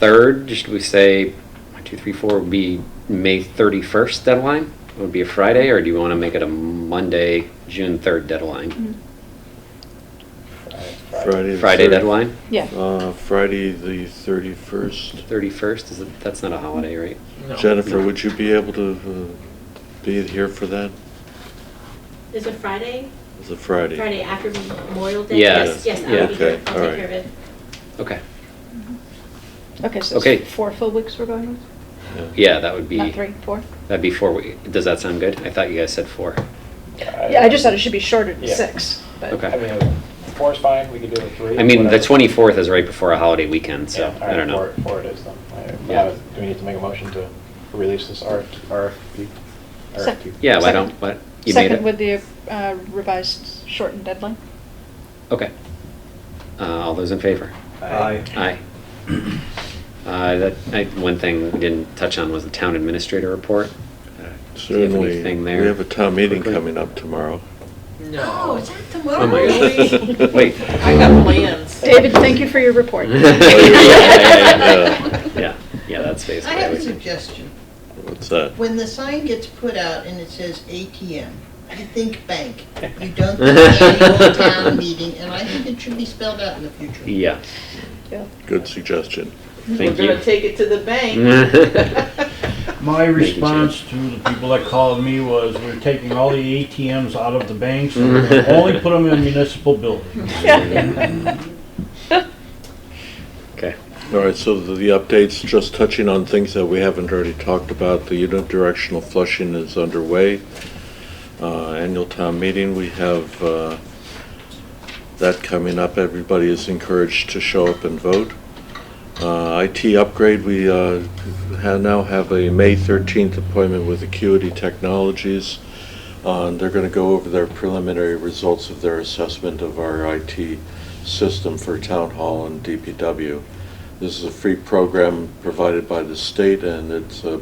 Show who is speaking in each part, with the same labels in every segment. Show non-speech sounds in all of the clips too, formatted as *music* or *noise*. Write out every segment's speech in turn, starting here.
Speaker 1: 3rd, should we say, one, two, three, four would be May 31st deadline? It Would be a Friday, or do you want to make it a Monday, June 3rd deadline?
Speaker 2: Friday. the
Speaker 1: Friday
Speaker 2: 30
Speaker 1: deadline?
Speaker 3: Yeah.
Speaker 2: Uh, Friday, the thirty-first.
Speaker 1: 31st, is it, that's not a holiday, right?
Speaker 2: Jennifer,
Speaker 1: No.
Speaker 2: would you be able to uh, be here for that?
Speaker 4: Is it Friday?
Speaker 2: It's a Friday.
Speaker 4: Friday after Memorial Day?
Speaker 1: Yeah.
Speaker 4: Yes, yes,
Speaker 1: Yeah.
Speaker 4: I'll be here.
Speaker 2: Okay,
Speaker 4: I'll
Speaker 2: all
Speaker 4: take
Speaker 2: right.
Speaker 4: care of it.
Speaker 1: Okay,
Speaker 3: Okay, so
Speaker 1: Okay.
Speaker 3: it's four full weeks we're going with?
Speaker 1: yeah, that would be.
Speaker 3: Not three, four?
Speaker 1: That'd be four weeks. Does that sound good? I thought you guys said four.
Speaker 3: Yeah, I just thought it should be shorter than
Speaker 5: Yeah.
Speaker 3: six, but.
Speaker 1: Okay.
Speaker 5: I mean, four's fine, we could do a three.
Speaker 1: I mean, the
Speaker 5: whatever.
Speaker 1: 24th is right before a holiday weekend, so
Speaker 5: Yeah, all
Speaker 1: I
Speaker 5: right,
Speaker 1: don't know.
Speaker 5: Four, four it is then. All right,
Speaker 1: Yeah.
Speaker 5: now, Do we need to make a motion to release this R- RFP?
Speaker 3: Sec-
Speaker 5: RFQ?
Speaker 1: Yeah, why
Speaker 3: Second.
Speaker 1: don't, what, you made
Speaker 3: Second
Speaker 1: it?
Speaker 3: with the uh, revised shortened deadline.
Speaker 1: Okay. Uh, All those in favor?
Speaker 5: Aye.
Speaker 1: Aye. Uh, That, I- one thing we didn't touch on was the town administrator report. Uh, do you have
Speaker 2: Certainly,
Speaker 1: anything
Speaker 2: we
Speaker 1: there?
Speaker 2: have a town meeting
Speaker 1: Quickly?
Speaker 2: coming up tomorrow.
Speaker 4: Oh, is that
Speaker 1: Oh my *laughs*
Speaker 4: tomorrow?
Speaker 2: *laughs*
Speaker 1: God. Wait.
Speaker 6: I got plans.
Speaker 3: David, thank you for your
Speaker 1: *laughs*
Speaker 3: report.
Speaker 1: Yeah, yeah, yeah, Yeah, Yeah, that's
Speaker 6: I
Speaker 1: basically.
Speaker 6: have a
Speaker 1: everything.
Speaker 6: suggestion.
Speaker 2: What's that?
Speaker 6: When the sign gets put out and it says ATM, you think bank. You
Speaker 1: *laughs*
Speaker 6: don't think annual town meeting, and I think it should be spelled out in the future.
Speaker 1: Yeah,
Speaker 3: Yeah.
Speaker 2: Good suggestion.
Speaker 1: thank *laughs*
Speaker 6: We're gonna
Speaker 1: you.
Speaker 6: take it to the
Speaker 1: *laughs*
Speaker 6: bank.
Speaker 1: Thank
Speaker 7: My
Speaker 1: you, Chair.
Speaker 7: response to the people that called me was, we're taking all the ATMs out of the banks and we're gonna only put them in municipal buildings.
Speaker 1: Okay.
Speaker 2: All right, so the the updates, just touching on things that we haven't already talked about, the unidirectional flushing is underway. Uh, Annual town meeting, we have uh, that coming up. Everybody is encouraged to show up and vote. Uh, IT upgrade, we uh, ha- now have a May 13th appointment with Acuity Technologies. Uh, and They're going to go over their preliminary results of their assessment of our IT system for town hall and DPW. This is a free program provided by the state, and it's a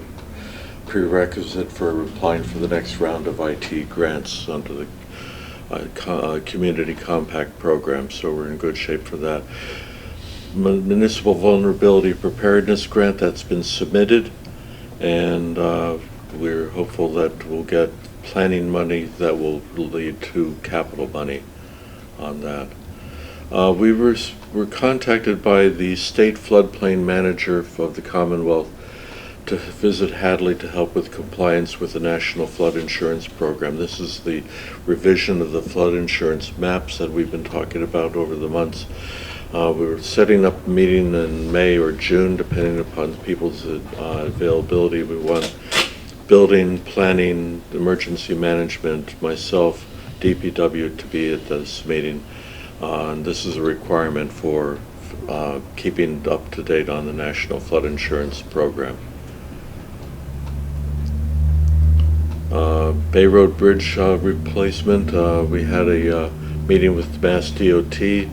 Speaker 2: prerequisite for applying for the next round of IT grants under the uh, co- uh, Community Compact Program, so we're in good shape for that. Mun- Municipal Vulnerability Preparedness Grant, that's been submitted, and uh, we're hopeful that we'll get planning money that will lead to capital money on that. Uh, We were, s- were contacted by the state floodplain manager of the Commonwealth to visit Hadley to help with compliance with the National Flood Insurance Program. This is the revision of the flood insurance maps that we've been talking about over the months. Uh, We were setting up a meeting in May or June, depending upon people's uh, availability. We want building, planning, emergency management, myself, DPW to be at this meeting. Uh, And this is a requirement for uh, keeping up to date on the National Flood Insurance Program. Uh, Bay Road Bridge uh, replacement, uh, we had a uh, meeting with Mass DOT. They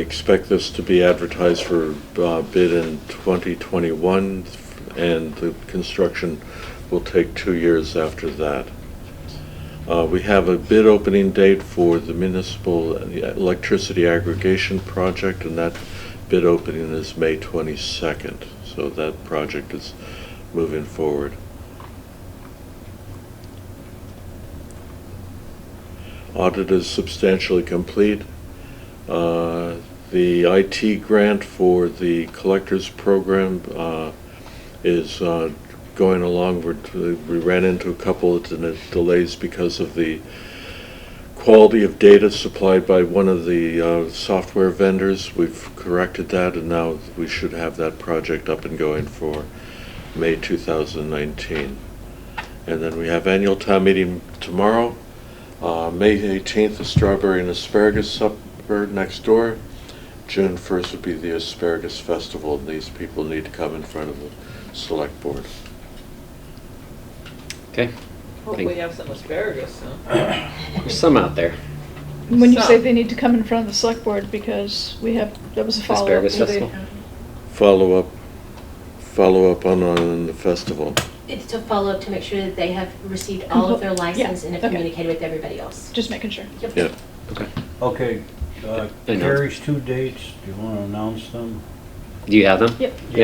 Speaker 2: expect this to be advertised for uh, bid in 2021, and the construction will take two years after that. Uh, We have a bid opening date for the municipal electricity aggregation project, and that bid opening is May 22nd. So that project is moving forward. Audit is substantially complete. Uh, The IT grant for the collectors program uh, is uh, going along. We're- We ran into a couple of de- delays because of the quality of data supplied by one of the uh, software vendors. We've corrected that, and now we should have that project up and going for May 2019. And then we have annual town meeting tomorrow. Uh, May 18th is strawberry and asparagus supper next door. June 1st would be the asparagus festival, and these people need to come in front of the select board.
Speaker 1: Okay,
Speaker 6: Hope we have some asparagus, huh?
Speaker 1: there's some out there.
Speaker 3: When you say
Speaker 6: So-
Speaker 3: they need to come in front of the select board because we have, that was a follow-up.
Speaker 1: Asparagus
Speaker 3: with the-
Speaker 1: Festival.
Speaker 2: Follow up, follow up on, on the festival.
Speaker 4: It's to follow up to make sure that they have received all of their
Speaker 3: Compl- yeah,
Speaker 4: license and have
Speaker 3: okay.
Speaker 4: communicated with everybody else.
Speaker 3: Just making sure.
Speaker 4: Yep.
Speaker 2: Yeah.
Speaker 1: Okay.
Speaker 7: Okay, uh,
Speaker 1: I know.
Speaker 7: Carrie's two dates, do you wanna announce them?
Speaker 1: Do you have them?
Speaker 3: Yep.